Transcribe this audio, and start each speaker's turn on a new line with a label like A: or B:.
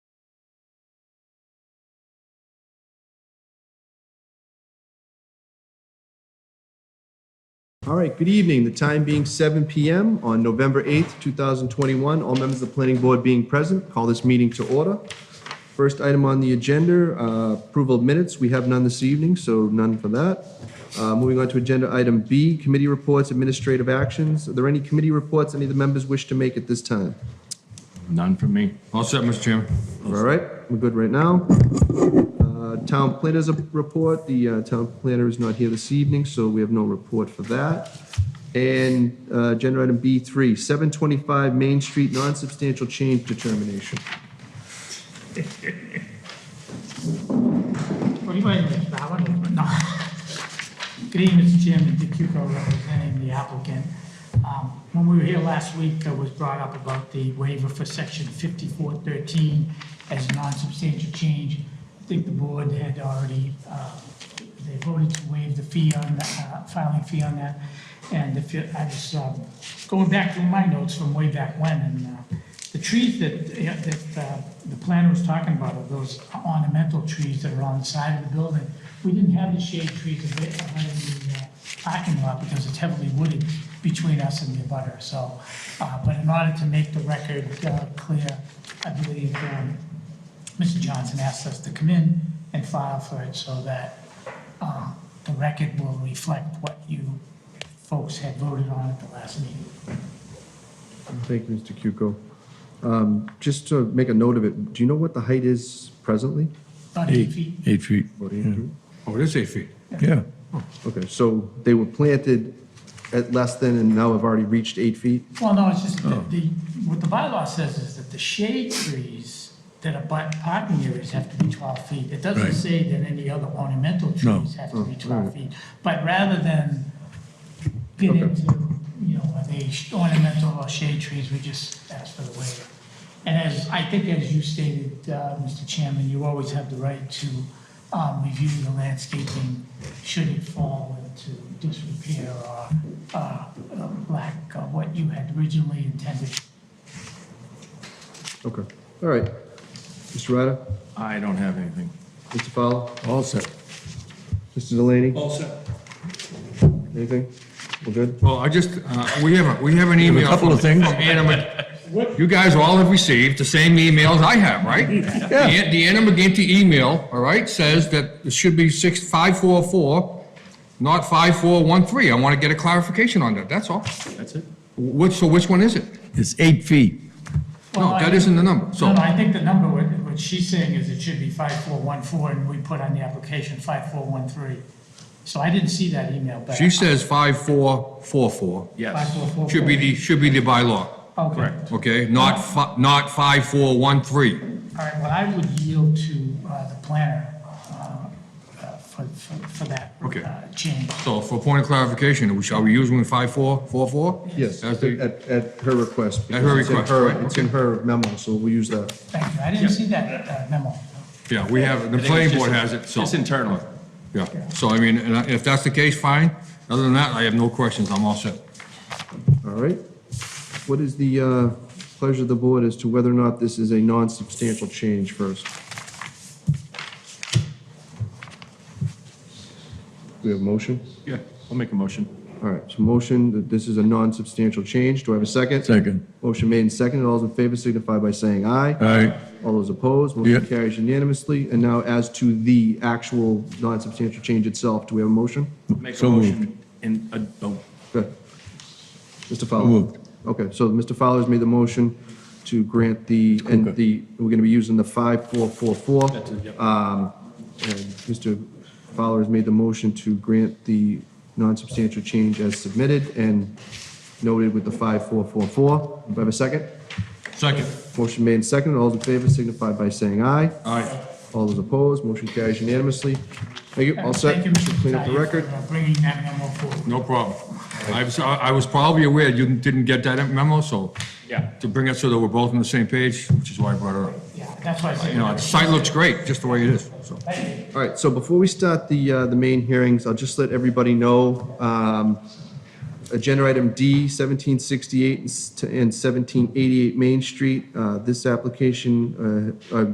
A: All right, good evening. The time being 7 PM on November 8th, 2021. All members of the planning board being present, call this meeting to order. First item on the agenda, uh, approval of minutes. We have none this evening, so none for that. Uh, Moving on to agenda item B, committee reports, administrative actions. Are there any committee reports any of the members wish to make at this time?
B: None from me. All set, Mr. Chairman.
A: All right, we're good right now. Uh, Town planners report, the uh, town planner is not here this evening, so we have no report for that. And uh, agenda item B3, 725 Main Street, non-substantial change determination.
C: What do you want to do, Bob? No. Good evening, Mr. Chairman, Dick Cuco representing the applicant. Um, When we were here last week, it was brought up about the waiver for section 5413 as a non-substantial change. I think the board had already, uh, they voted to waive the fee on, uh, filing fee on that. And if you, I was uh, going back through my notes from way back when, and uh, the trees that, yeah, that uh, the planner was talking about, are those ornamental trees that are on the side of the building, we didn't have the shade trees of it out in the uh, parking lot because it's heavily wooded between us and the abutter. so. uh, But in order to make the record uh, clear, I believe um, Mr. Johnson asked us to come in and file for it so that uh, the record will reflect what you folks had voted on at the last meeting.
A: Thank you, Mr. Cuco. Um, Just to make a note of it, do you know what the height is presently?
C: About eight
D: Eight,
C: feet.
D: eight feet,
A: What do you-
B: Oh, it is eight feet.
D: yeah.
A: Okay, so they were planted at less than and now have already reached eight feet?
C: Well, no, it's just
D: Oh.
C: that the, what the bylaw says is that the shade trees that abut parking areas have to be twelve feet. It doesn't
D: Right.
C: say that any other ornamental
D: No.
C: trees have to be
A: right.
C: twelve feet. But rather than get
A: Okay.
C: into, you know, are they sh- ornamental or shade trees, we just ask for the waiver. And as, I think as you stated, uh, Mr. Chairman, you always have the right to um, review the landscaping should it fall into disrepair or uh, um, lack of what you had originally intended.
A: Okay, all right. Mr. Ryder,
B: I don't have anything.
A: Mr. Fowler,
D: All set.
A: Mr. Delaney,
E: All set.
A: anything? We're good?
B: Well, I just, uh, we have, a we have an
D: have a
B: email.
D: couple
B: from-
D: of things.
B: from Anna- You guys all have received the same emails I have, right? The the Anna McGinty email, all right, says that it should be six, five, four, four, not five, four, one, three. I want to get a clarification on that, that's all.
E: That's it?
B: Which, so which one is it?
D: It's eight feet.
B: No,
C: Well, I-
B: that isn't the number, so.
C: No, no, I think the number, what what she's saying is it should be 5414, and we put on the application 5413. So I didn't see that email back.
B: She says five, four, four, four.
E: Yes.
C: 5444.
B: Should be the, should be the bylaw,
C: Okay.
B: okay? Not fi, not five, four, one, three.
C: All right, well, I would yield to uh, the planner uh, uh, for for for that
B: Okay.
C: uh, change.
B: So for point of clarification, shall we use one five four four four?
A: Yes,
B: As
A: at,
B: the-
A: at her request.
B: At her
A: because it's in
B: request, right,
A: It's in her memo, so we'll use that.
C: Thank you, I didn't see that uh, memo.
B: Yeah, we have, the
E: I think it's
B: planning board
E: just-
B: has it, so.
E: It's internal.
B: Yeah, so I mean, and I- if that's the case, fine. Other than that, I have no questions, I'm all set.
A: All right. What is the uh, pleasure of the board as to whether or not this is a non-substantial change first? Do we have a motion?
E: Yeah, I'll make a motion.
A: All right, so motion that this is a non-substantial change. Do I have a second?
D: Second.
A: Motion made and seconded. All those in favor signify by saying aye.
D: Aye.
A: All those opposed, motion
D: Yeah.
A: carries unanimously. And now as to the actual non-substantial change itself, do we have a motion?
E: Make a
D: So
E: motion in, a- oh,
A: Good. Mr. Fowler?
D: So moved.
A: Okay, so Mr. Fowler's made the motion to grant the, and
D: Okay.
A: the, we're going to be using the 5444.
E: That's it, yep.
A: Um, And Mr. Fowler has made the motion to grant the non-substantial change as submitted and noted with the 5444. Do I have a second?
B: Second.
A: Motion made and seconded. All those in favor signify by saying aye.
B: All right.
A: All those opposed, motion carries unanimously. Thank you, all set.
C: Thank you, Mr.
A: Clean up the
C: Tataia,
A: record.
C: for, uh, Bringing that memo forward.
B: No problem. I was, I was probably aware you didn't get that memo, so.
E: Yeah.
B: To bring it so that we're both on the same page, which is why I brought it up.
C: Yeah, that's why I said.
B: You know, the site looks great, just the way it is, so.
C: Thank you.
A: All right, so before we start the, uh, the main hearings, I'll just let everybody know, um, agenda item D, seventeen sixty-eight and seventeen eighty-eight Main Street, uh, this application, uh, uh,